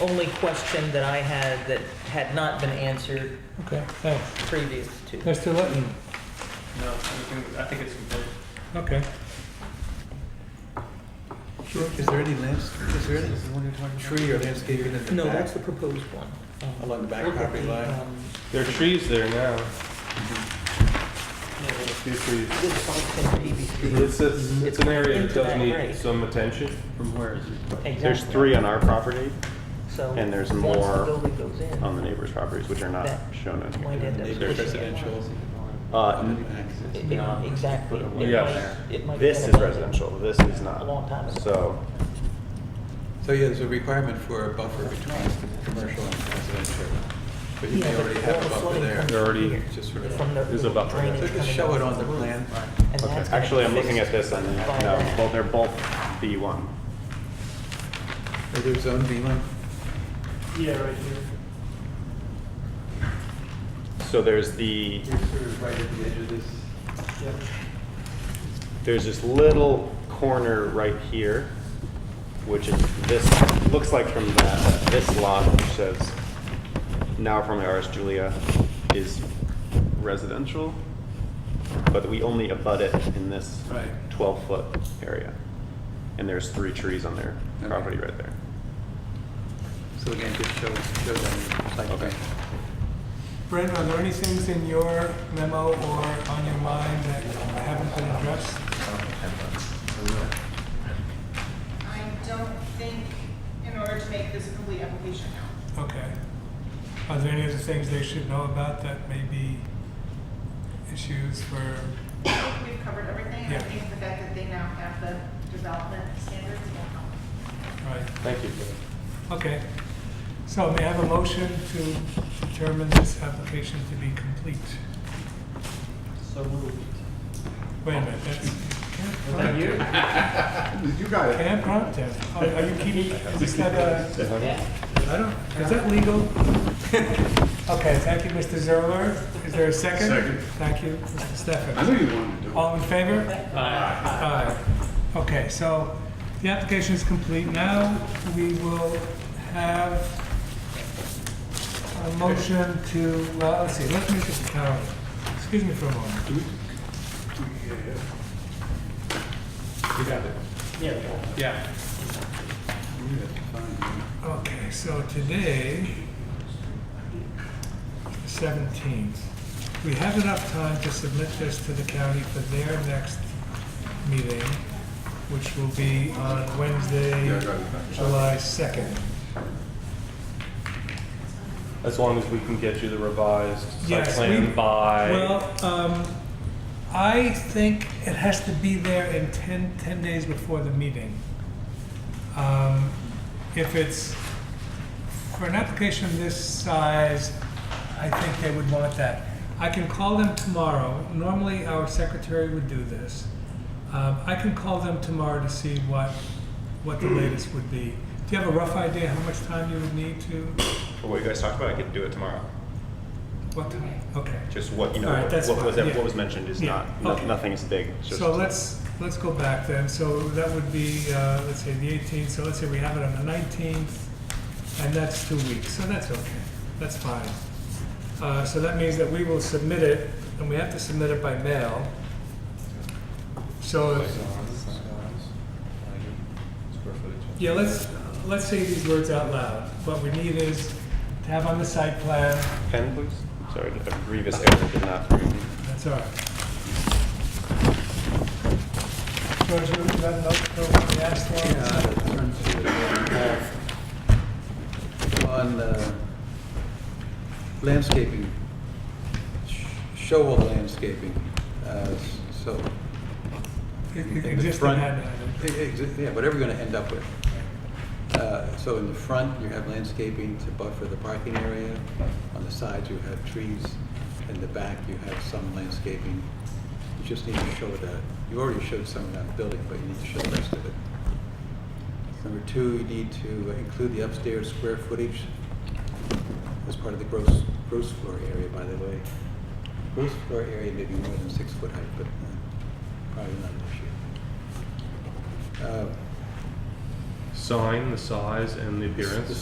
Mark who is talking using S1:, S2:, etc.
S1: only question that I had that had not been answered
S2: Okay, thanks.
S1: previous to.
S2: Mr. Litton,
S3: No, we can- I think it's complete.
S2: okay.
S4: Is there any lands, is there any tree or landscaping in the
S1: No,
S4: back,
S1: that's the proposed one.
S4: along the back
S1: Look at
S4: property
S1: the,
S4: line?
S1: um,
S3: There are trees there now. Yeah, there's a few trees.
S1: This Falcon BBC.
S3: It's, it's, it's an area that
S1: Into
S3: does
S1: that
S3: need
S1: grade.
S3: some attention.
S5: From where is it?
S6: There's
S1: Exactly.
S6: three on our property
S1: So
S6: and there's
S1: once
S6: more
S1: the building goes in,
S6: on the neighbor's properties, which are not shown in
S1: might end up
S6: here.
S4: Neighbor's
S1: pushing it.
S4: residential.
S6: Uh, n-
S1: It- uh, it- Exactly. It might-
S3: Yes.
S1: it might
S6: This
S1: have
S6: is
S1: been abandoned.
S6: residential, this is
S1: A long time
S6: not.
S1: ago.
S6: So,
S4: So yeah, there's a requirement for a buffer between commercial and residential, but you may
S1: Yeah,
S4: already
S1: but
S4: have
S1: all
S4: a
S1: the
S4: buffer
S1: flooding
S4: there.
S1: comes
S3: They're already-
S1: here
S4: Just sort of-
S1: from the
S3: There's a buffer there.
S1: drainage
S4: So just
S1: coming
S4: show it
S1: off
S4: on
S1: the
S4: the
S1: roof.
S4: plan.
S1: And
S6: okay,
S1: that's gonna
S6: actually, I'm
S1: be
S6: looking at this
S1: fixed
S6: and,
S1: by
S6: no,
S1: that.
S6: well, they're both B1.
S4: Is there zone B line?
S3: Yeah, right here.
S6: So there's the,
S5: sort of right at the edge of this.
S6: there's this little corner right here, which is this, looks like from the, this lot, which says, now formerly ours, Julia, is residential, but we only abut it in this
S4: Right.
S6: twelve-foot area. And there's three trees on their
S4: Okay.
S6: property right there.
S4: So again, just show, show them, like,
S6: Okay.
S2: Brent, are there any things in your memo or on your mind that haven't been addressed?
S7: I don't think, in order to make this a complete application, no.
S2: Okay. Are there any other things they should know about that may be issues for,
S7: I think we've covered everything, and I
S2: Yeah.
S7: think the fact that they now have the development standards will help.
S2: right?
S3: Thank you.
S2: Okay. So may I have a motion to determine this application to be complete?
S5: So moved.
S2: Wait a minute, that's.
S5: that you?
S8: You got it.
S2: Can't prompt him. Are are you keeping, is that uh, a? I don't, is that legal? Okay, thank you, Mr. Zerler. Is there a second?
S8: Second.
S2: Thank you, Mr.
S8: I
S2: Stefan.
S8: knew you wanted to do it.
S2: All in favor? Aye. Okay, so the application is complete. Now we will have a motion to, well, let's see, let's make this a calendar. uh, Excuse me for a moment.
S4: You got it.
S3: Yeah.
S4: You got it. Fine.
S2: Okay, so today, seventeenth, we have enough time to submit this to the county for their next meeting, which will be on
S8: Yeah, I
S2: Wednesday,
S8: got it.
S2: July second.
S3: As long as we can get you the revised site
S2: Yes, we-
S3: plan by.
S2: Well, um, I think it has to be there in 10, 10 days before the meeting. Um, if it's, for an application this size, I think they would want that. I can call them tomorrow. Normally, our secretary would do this. Um, I can call them tomorrow to see what, what the latest would be. Do you have a rough idea how much time you would need to,
S6: But what you guys talked about, I could do it tomorrow.
S2: what time? Okay.
S6: Just what, you know,
S2: All right,
S6: what
S2: that's
S6: what was,
S2: fine, yeah.
S6: what was mentioned is
S2: Yeah,
S6: not, no-
S2: okay.
S6: nothing is big. it's just-
S2: So let's, let's go back then, so that would be, uh, let's say the eighteenth, so let's say we have it on the nineteenth, and that's two weeks, so that's okay, that's fine. Uh, so that means that we will submit it, and we have to submit it by mail. So, if-
S4: Square footage.
S2: yeah, let's, let's say these words out loud, what we need is to have on the site plan,
S6: Pen, please? Sorry, a grievous error did not.
S2: that's all right. George, you got a note for what we asked for?
S4: Yeah, that turns to the- On uh, landscaping, sh- show all the landscaping, uh, s- so. in the
S2: Existing
S4: front-
S2: had,
S4: e- exi- Yeah, whatever you're gonna end up with. Uh, So in the front, you have landscaping to buffer the parking area. On the sides, you have trees. In the back, you have some landscaping. You just need to show the, you already showed some of that building, but you need to show the rest of it. Number two, you need to include the upstairs square footage as part of the gross, gross floor area, by the way. Gross floor area may be more than six foot height, but uh, probably not an issue. Uh,
S3: Sign, the size, and the appearance.